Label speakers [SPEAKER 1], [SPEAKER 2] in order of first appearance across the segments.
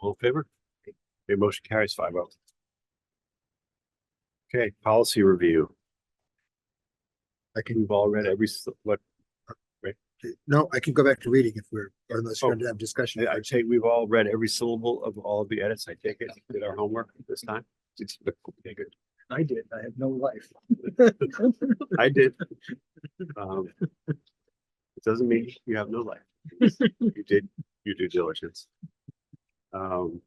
[SPEAKER 1] All in favor? Okay, motion carries five oh. Okay, policy review. I think we've all read every, s- what,
[SPEAKER 2] No, I can go back to reading if we're, or unless you're
[SPEAKER 1] Oh.
[SPEAKER 2] gonna have discussion.
[SPEAKER 1] I'd say we've all read every syllable of all of the edits. I take it, did our homework this time. Okay, good.
[SPEAKER 2] I did. I have no life.
[SPEAKER 1] I did. Um, It doesn't mean you have no life. You did your due diligence. Um.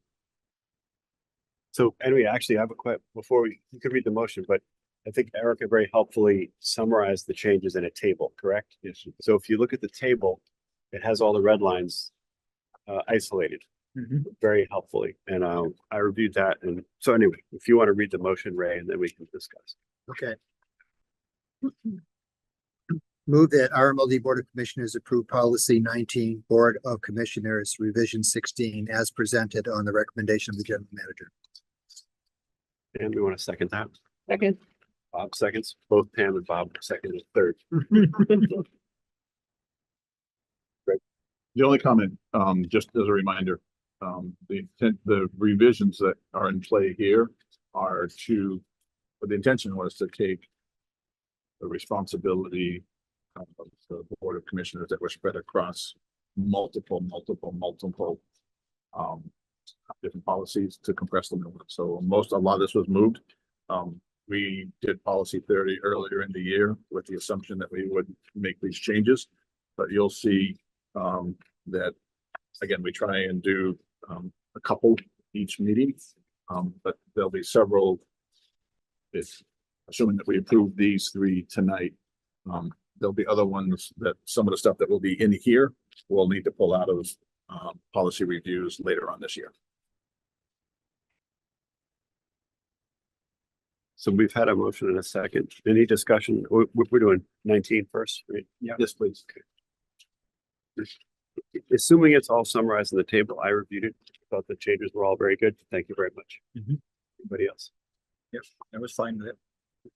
[SPEAKER 1] So anyway, actually, I have a que- before we, you could read the motion, but I think Erica very helpfully summarized the changes in a table, correct? Yes. So if you look at the table, it has all the red lines uh isolated very helpfully. And um, I reviewed that. And so anyway, if you want to read the motion, Ray, and then we can discuss.
[SPEAKER 2] Okay. Move that RMLD Board of Commissioners approve policy nineteen, Board of Commissioners revision sixteen as presented on the recommendation of the general manager.
[SPEAKER 1] And we want to second that.
[SPEAKER 3] Second.
[SPEAKER 1] Bob seconds, both Pam and Bob second and third.
[SPEAKER 4] The only comment, um, just as a reminder, um, the intent, the revisions that are in play here are to, but the intention was to take the responsibility of the Board of Commissioners that were spread across multiple, multiple, multiple um, different policies to compress them. into one. So most, a lot of this was moved. Um, we did policy thirty earlier in the year with the assumption that we would make these changes. But you'll see, um, that, again, we try and do, um, a couple each meeting. Um, but there'll be several. If, assuming that we approve these three tonight, um, there'll be other ones that, some of the stuff that will be in here, we'll need to pull out of, um, policy reviews later on this year.
[SPEAKER 1] So we've had a motion and a second. Any discussion? We're, we're doing 19 first, right? Yeah.
[SPEAKER 4] Yes, please.
[SPEAKER 1] Assuming it's all summarized in the table, I reviewed it, thought the changes were all very good. Thank you very much.
[SPEAKER 5] Mhm.
[SPEAKER 1] Anybody else?
[SPEAKER 5] I was fine with it.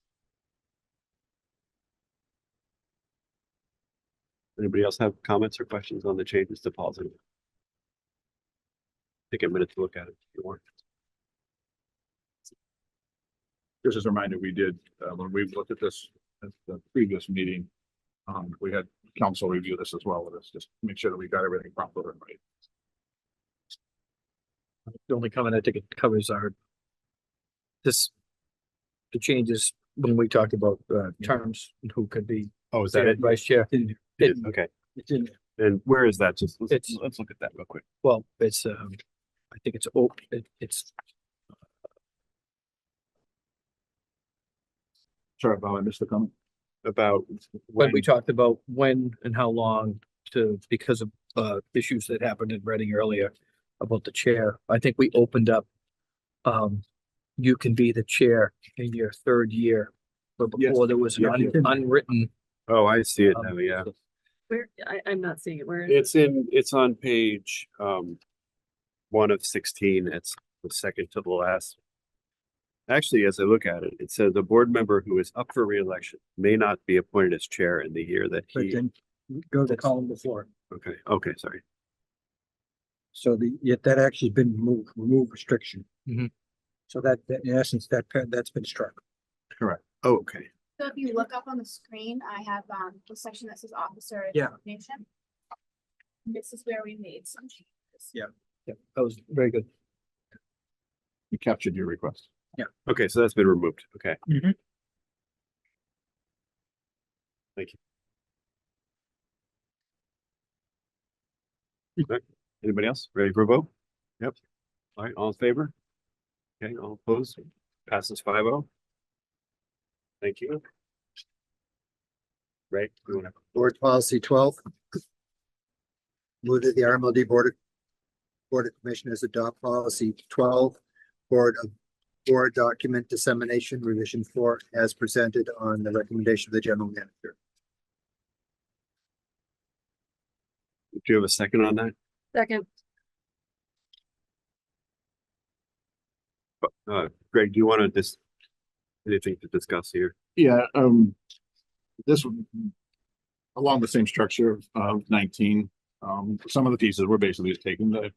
[SPEAKER 1] Anybody else have comments or questions on the changes to policy? Take a minute to look at it if you want.
[SPEAKER 4] just as a reminder, we did, uh, when we looked at this at the previous meeting, um, we had council review this as well with us, just to make sure that we got everything proper and right.
[SPEAKER 5] The only comment I think it covers are this, the changes when we talked about uh, terms and who could be
[SPEAKER 1] Oh, is
[SPEAKER 5] chair, vice chair.
[SPEAKER 1] It
[SPEAKER 5] It-
[SPEAKER 1] is, okay.
[SPEAKER 5] It's in,
[SPEAKER 1] And where is that? Just, let's,
[SPEAKER 5] It's-
[SPEAKER 1] let's look at that real quick.
[SPEAKER 5] well, it's, um, I think it's, oh, it, it's,
[SPEAKER 4] Sorry, Bob, I missed the comment.
[SPEAKER 1] About
[SPEAKER 5] when
[SPEAKER 1] when,
[SPEAKER 5] we talked about when and how long to, because of, uh, issues that happened in Reading earlier about the chair. I think we opened up, um, you can be the chair in your third year. But
[SPEAKER 4] Yes.
[SPEAKER 5] before there was an
[SPEAKER 4] Yeah.
[SPEAKER 5] un- unwritten
[SPEAKER 1] oh, I see it
[SPEAKER 5] Um,
[SPEAKER 1] now, yeah.
[SPEAKER 3] Where, I, I'm not seeing it. Where is it?
[SPEAKER 1] It's in, it's on page, um, one of sixteen, it's the second to the last. Actually, as I look at it, it says the board member who is up for reelection may not be appointed as chair in the year that
[SPEAKER 5] But
[SPEAKER 1] he,
[SPEAKER 5] then go to the column before.
[SPEAKER 1] okay, okay, sorry.
[SPEAKER 6] So the, yet that actually has been removed, remove restriction.
[SPEAKER 5] Mhm.
[SPEAKER 6] So that, that in essence, that, pa- that's been struck.
[SPEAKER 1] Oh, Okay,
[SPEAKER 7] So if you look up on the screen, I have um the section that says officer.
[SPEAKER 5] Yeah.
[SPEAKER 7] Nation. This is where we made some changes.
[SPEAKER 5] Yeah, that was very good.
[SPEAKER 4] We captured your request.
[SPEAKER 1] okay, so that's been removed, okay.
[SPEAKER 5] Mhm.
[SPEAKER 1] Thank you. Okay, Anybody else ready for a vote? Yep. All right, all in favor? Okay, all opposed, passes five oh. Thank you. Right, we wanna-
[SPEAKER 2] Board policy twelve. Move that the RMLD Board of Board of Commissioners adopt policy twelve, Board of Board Document Dissemination Revision Four as presented on the recommendation of the general manager.
[SPEAKER 1] do you have a second on that?
[SPEAKER 3] Second.
[SPEAKER 1] Uh, Greg, do you want to just, anything to discuss here?
[SPEAKER 4] Yeah, um, this one, along the same structure of- of nineteen, um, some of the pieces were basically just taken, the